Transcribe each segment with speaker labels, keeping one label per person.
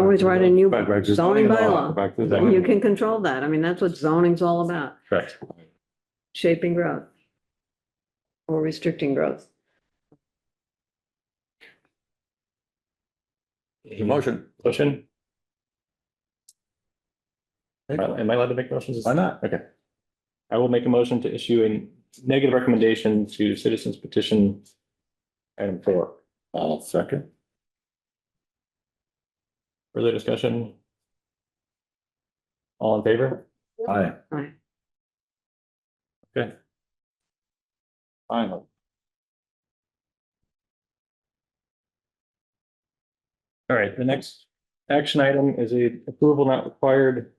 Speaker 1: always write a new
Speaker 2: Right, right, just-
Speaker 1: zoning bylaw.
Speaker 2: Back to
Speaker 1: And you
Speaker 2: zoning.
Speaker 1: can control that. I mean, that's what zoning's all about,
Speaker 3: Correct.
Speaker 1: shaping growth or restricting growth.
Speaker 3: Motion.
Speaker 4: Motion? Am I- am I allowed to make motions?
Speaker 3: Why not?
Speaker 4: Okay. I will make a motion to issue a negative recommendation to citizens petition item four.
Speaker 3: I'll second.
Speaker 4: Further discussion? All in favor?
Speaker 3: Aye.
Speaker 1: Aye.
Speaker 4: Okay.
Speaker 3: Finally.
Speaker 4: All right, the next action item is a approval not required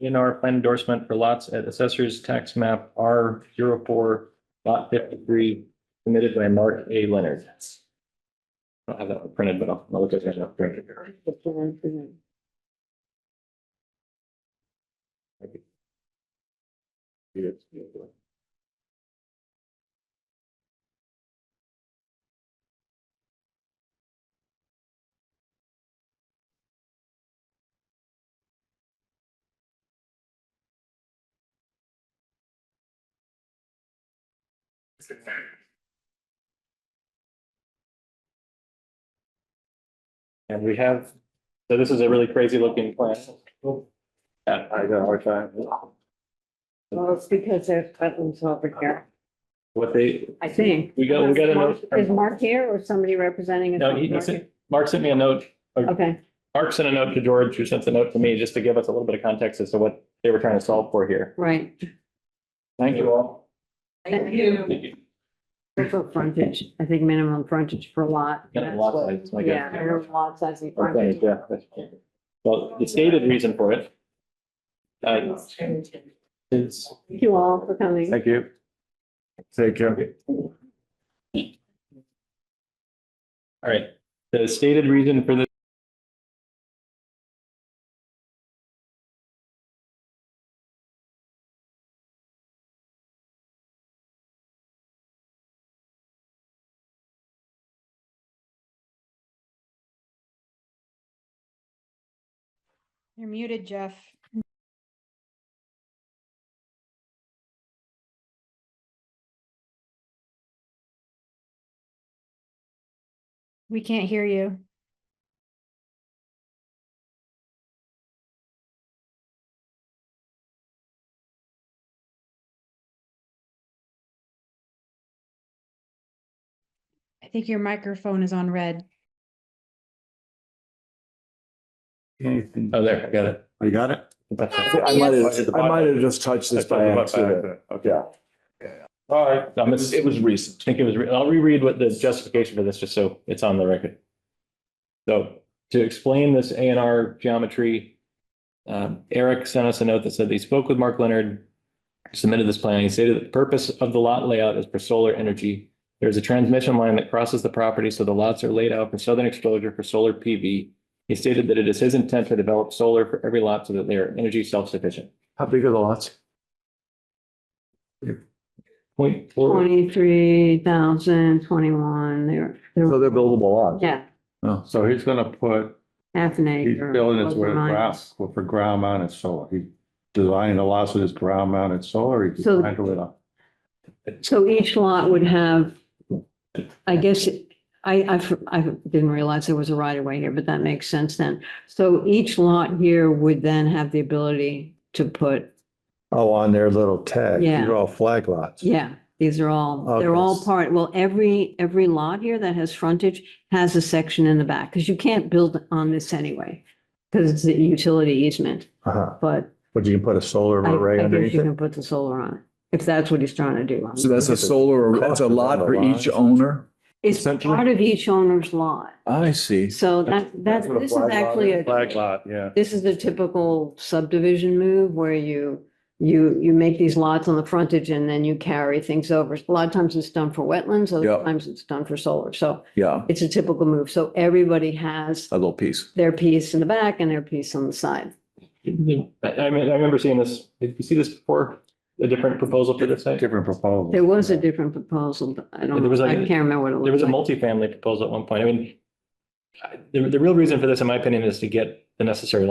Speaker 4: in our plan endorsement for lots at assessor's tax map R 4 lot fifty-three, submitted by Mark A. Leonard. I don't have that one printed, but I'll I'll look at that up. And we have, so this is a really crazy looking plan. Yeah, I got a hard time.
Speaker 1: Well, it's because there's buttons over here,
Speaker 4: What they,
Speaker 1: I think.
Speaker 4: we got, we got a note.
Speaker 1: Is
Speaker 4: from-
Speaker 1: Mark here or somebody representing? us?
Speaker 4: No, he, he sent- Mark sent me a note
Speaker 1: Okay,
Speaker 4: Mark sent a note to George, who sent the note to me, just to give us a little bit of context as to what they were trying to solve for here.
Speaker 1: right.
Speaker 4: Thank you all.
Speaker 1: Thank you. For frontage, I think minimum frontage per lot.
Speaker 4: Yeah, lot size, I
Speaker 1: Yeah,
Speaker 4: guess.
Speaker 1: minimum lot size and
Speaker 4: Okay,
Speaker 1: frontage.
Speaker 4: yeah, that's- Well, the stated reason for it. Uh, is,
Speaker 1: Thank you all for coming.
Speaker 2: Thank you.
Speaker 3: Take care.
Speaker 4: all right, the stated reason for this.
Speaker 5: You're muted, Jeff. We can't hear you. I think your microphone is on red.
Speaker 4: Oh, there, I got it.
Speaker 3: You got it?
Speaker 4: That's
Speaker 6: I
Speaker 4: it.
Speaker 6: might
Speaker 3: Hit the
Speaker 6: have, I
Speaker 3: button.
Speaker 6: might have just touched this by accident.
Speaker 3: Okay.
Speaker 6: Yeah.
Speaker 4: All right. I miss-
Speaker 6: It was
Speaker 4: I
Speaker 6: recent.
Speaker 4: think it was, re- I'll reread what the justification for this, just so it's on the record. So to explain this A and R geometry, um, Eric sent us a note that said that he spoke with Mark Leonard, submitted this plan. He stated that the purpose of the lot layout is for solar energy. There is a transmission line that crosses the property, so the lots are laid out for southern exposure for solar PV. He stated that it is his intent to develop solar for every lot so that they are energy self-sufficient.
Speaker 6: How big are the lots?
Speaker 4: Point four,
Speaker 1: Twenty-three thousand, twenty-one, they're,
Speaker 6: So
Speaker 1: they're,
Speaker 6: they're buildable lots. Oh.
Speaker 1: yeah,
Speaker 2: So he's gonna put,
Speaker 1: half an
Speaker 2: he's
Speaker 1: acre.
Speaker 2: building it with
Speaker 1: plus or minus.
Speaker 2: ground, for ground mounted solar. He designed the lots with his ground mounted solar. He
Speaker 1: So-
Speaker 2: designed it with a.
Speaker 1: So each lot would have, I guess, I, I, f- I didn't realize there was a right of way here, but that makes sense then. So each lot here would then have the ability to put,
Speaker 6: Oh, on their little tag.
Speaker 1: Yeah.
Speaker 6: They're all flag lots.
Speaker 1: yeah, these are all, they're
Speaker 6: Okay.
Speaker 1: all part, well, every, every lot here that has frontage has a section in the back, because you can't build on this anyway, because it's a utility easement,
Speaker 6: Uh-huh.
Speaker 1: but
Speaker 6: But you can put a solar
Speaker 1: I,
Speaker 6: array
Speaker 1: I guess
Speaker 6: underneath
Speaker 1: you
Speaker 6: it.
Speaker 1: can put the solar on it, if that's what he's trying to do.
Speaker 7: So that's a solar, that's a lot for each owner?
Speaker 1: It's
Speaker 6: essentially-
Speaker 1: part of each owner's lot.
Speaker 7: I see.
Speaker 1: So that, that,
Speaker 6: what a
Speaker 1: this is
Speaker 6: flag lot
Speaker 1: actually
Speaker 6: is.
Speaker 1: a,
Speaker 2: lot, yeah.
Speaker 1: this is the typical subdivision move where you, you, you make these lots on the frontage and then you carry things over. A lot of times it's done for wetlands, other
Speaker 7: Yep.
Speaker 1: times it's done for solar. So
Speaker 7: Yeah,
Speaker 1: it's a typical move. So everybody has
Speaker 7: a little piece.
Speaker 1: their piece in the back and their piece on the side.
Speaker 4: I, I mean, I remember seeing this, did you see this before? A different proposal for this? site?
Speaker 2: Different proposal.
Speaker 1: There was a different proposal, but I
Speaker 4: There
Speaker 1: don't,
Speaker 4: was
Speaker 1: know. I
Speaker 4: like a-
Speaker 1: can't remember what it
Speaker 4: There was
Speaker 1: was.
Speaker 4: a multifamily proposal at one point. I mean, I- The, the real reason for this, in my opinion, is to get the necessary